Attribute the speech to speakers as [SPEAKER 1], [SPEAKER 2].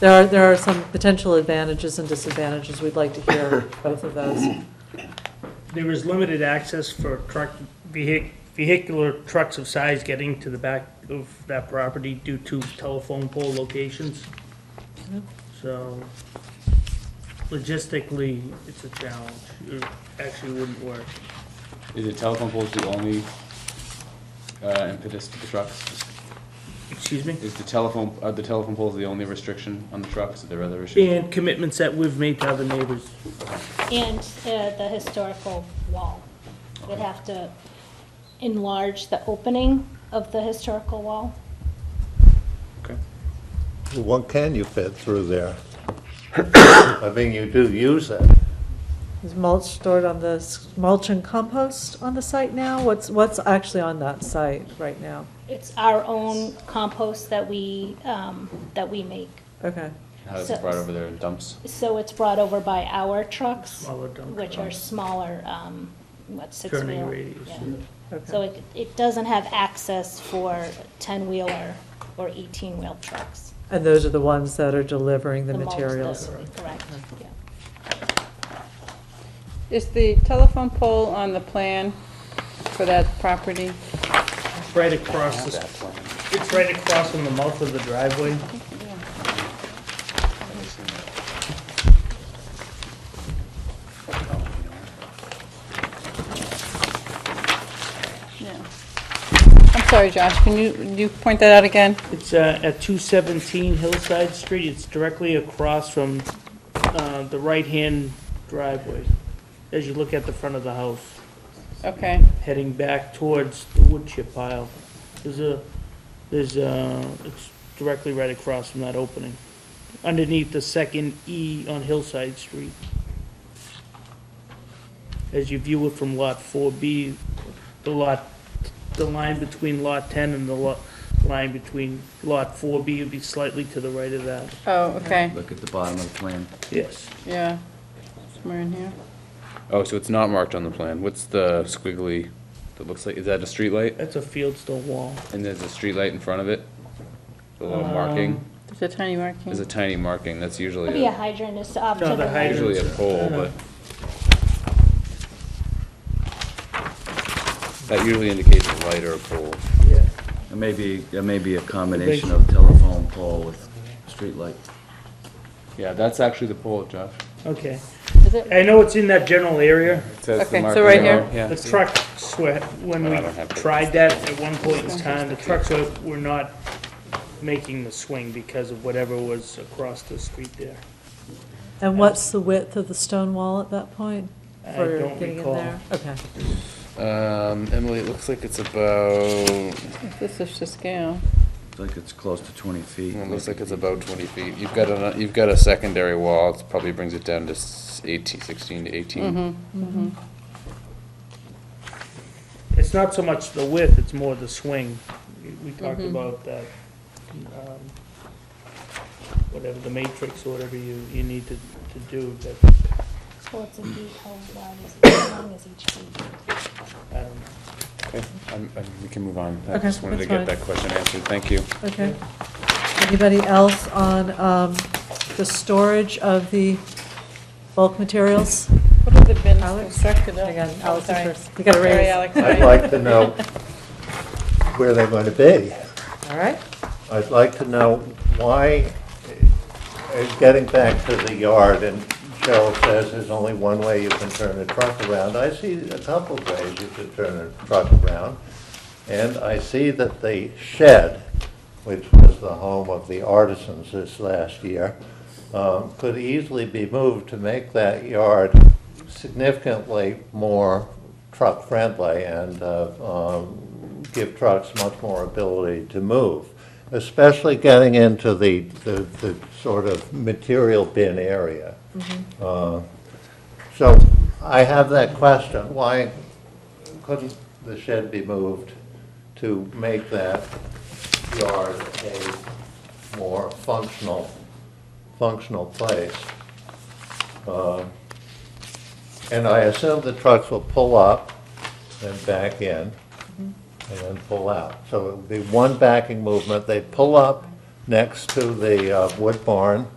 [SPEAKER 1] There are, there are some potential advantages and disadvantages. We'd like to hear both of those.
[SPEAKER 2] There is limited access for truck, vehic- vehicular trucks of size getting to the back of that property due to telephone pole locations. So logistically, it's a challenge. It actually wouldn't work.
[SPEAKER 3] Is it telephone poles the only uh, impetus to the trucks?
[SPEAKER 2] Excuse me?
[SPEAKER 3] Is the telephone, are the telephone poles the only restriction on the trucks? Are there other issues?
[SPEAKER 2] And commitments that we've made to other neighbors.
[SPEAKER 4] And uh, the historical wall. We'd have to enlarge the opening of the historical wall.
[SPEAKER 3] Okay.
[SPEAKER 5] What can you fit through there? I mean, you do use it.
[SPEAKER 1] Is mulch stored on the, s- mulch and compost on the site now? What's, what's actually on that site right now?
[SPEAKER 4] It's our own compost that we, um, that we make.
[SPEAKER 1] Okay,
[SPEAKER 3] How is
[SPEAKER 4] So-
[SPEAKER 3] it brought over there in dumps?
[SPEAKER 4] So it's brought over by our trucks,
[SPEAKER 2] Smaller dump
[SPEAKER 4] which are
[SPEAKER 2] trucks.
[SPEAKER 4] smaller, um, what, six wheel?
[SPEAKER 2] Turning radius.
[SPEAKER 4] Yeah. So
[SPEAKER 1] okay.
[SPEAKER 4] it, it doesn't have access for ten wheeler or eighteen wheel trucks.
[SPEAKER 1] And those are the ones that are delivering the
[SPEAKER 4] mulch that-
[SPEAKER 1] materials?
[SPEAKER 4] Correct, yeah.
[SPEAKER 6] Is the telephone pole on the plan for that property?
[SPEAKER 2] Right across, the- it's right across from the mouth of the driveway.
[SPEAKER 6] Yeah. I'm sorry, Josh, can you, you point that out again?
[SPEAKER 2] It's uh, at 217 Hillside Street. It's directly across from uh, the right-hand driveway as you look at the front of the house,
[SPEAKER 6] Okay,
[SPEAKER 2] heading back towards the wood chip pile. There's a, there's a, it's directly right across from that opening, underneath the second E on Hillside Street. As you view it from Lot 4B, the lot, the line between Lot 10 and the lot, line between Lot 4B would be slightly to the right of that.
[SPEAKER 6] oh, okay,
[SPEAKER 3] Look at the bottom of the plan.
[SPEAKER 2] Yes.
[SPEAKER 6] yeah, somewhere in here.
[SPEAKER 3] Oh, so it's not marked on the plan. What's the squiggly that looks like, is that a street light?
[SPEAKER 2] That's a fieldstone wall.
[SPEAKER 3] And there's a street light in front of it? The little marking?
[SPEAKER 6] There's a tiny
[SPEAKER 3] There's a
[SPEAKER 6] marking.
[SPEAKER 3] tiny marking. That's
[SPEAKER 4] Could
[SPEAKER 3] usually,
[SPEAKER 4] be a
[SPEAKER 3] a-
[SPEAKER 4] hydrant is um, off to
[SPEAKER 2] No,
[SPEAKER 4] the
[SPEAKER 2] the
[SPEAKER 4] right.
[SPEAKER 2] hydrant.
[SPEAKER 3] usually a pole,
[SPEAKER 2] Uh-huh.
[SPEAKER 3] but. That usually indicates a light or a pole.
[SPEAKER 2] Yeah.
[SPEAKER 7] It may be, it may be a combination of telephone pole with streetlight.
[SPEAKER 3] Yeah, that's actually the pole, Josh.
[SPEAKER 2] Okay.
[SPEAKER 6] Is it?
[SPEAKER 2] I know it's in that general area.
[SPEAKER 3] It says the
[SPEAKER 6] Okay, so
[SPEAKER 3] marking
[SPEAKER 6] right
[SPEAKER 3] there.
[SPEAKER 6] here?
[SPEAKER 3] Yeah.
[SPEAKER 2] The trucks were, when
[SPEAKER 3] I don't have
[SPEAKER 2] we
[SPEAKER 3] pictures.
[SPEAKER 2] tried that at one point in time, the trucks were, were not making the swing because of whatever was across the street there.
[SPEAKER 1] And what's the width of the stone wall at that point?
[SPEAKER 2] I
[SPEAKER 1] for
[SPEAKER 2] don't
[SPEAKER 1] getting in
[SPEAKER 2] recall.
[SPEAKER 1] there? Okay.
[SPEAKER 3] Um, Emily, it looks like it's about,
[SPEAKER 6] This is to scale.
[SPEAKER 7] It's like it's close to 20 feet.
[SPEAKER 3] it looks like it's about twenty feet. You've got a, you've got a secondary wall, it probably brings it down to s- eighteen, sixteen to
[SPEAKER 1] Mm-hmm.
[SPEAKER 3] eighteen.
[SPEAKER 2] It's not so much the width, it's more the swing. We- We talked about that, um, whatever the matrix, or whatever you, you need to, to do, that,
[SPEAKER 4] Well, it's a beat, how loud is it, how long is each beat?
[SPEAKER 2] I don't know.
[SPEAKER 3] Okay, I'm, I'm, we can move on. I
[SPEAKER 1] Mm-hmm. Okay,
[SPEAKER 3] just wanted to
[SPEAKER 1] that's
[SPEAKER 3] get that question answered, thank you.
[SPEAKER 1] Okay. Anybody else on um, the storage of the bulk materials?
[SPEAKER 6] What have the bins
[SPEAKER 1] Alex?
[SPEAKER 6] constructed of?
[SPEAKER 1] Hang on,
[SPEAKER 6] Oh,
[SPEAKER 1] Alex is
[SPEAKER 6] sorry.
[SPEAKER 1] first. You got a
[SPEAKER 6] Sorry,
[SPEAKER 1] raise.
[SPEAKER 6] Alex,
[SPEAKER 5] I'd
[SPEAKER 6] sorry.
[SPEAKER 5] like to know where they're going to be.
[SPEAKER 1] All right.
[SPEAKER 5] I'd like to know why, uh, getting back to the yard, and Cheryl says there's only one way you can turn a truck around. I see a couple of ways you can turn a truck around. And I see that the shed, which was the home of the artisans this last year, um, could easily be moved to make that yard significantly more truck-friendly and uh, um, give trucks much more ability to move, especially getting into the, the the sort of material bin area. Uh, So I have that question, why couldn't the shed be moved to make that yard a more functional, functional place? Uh, And I assume the trucks will pull up, then back in, and then pull out. So it would be one backing movement, they pull up next to the uh, wood barn,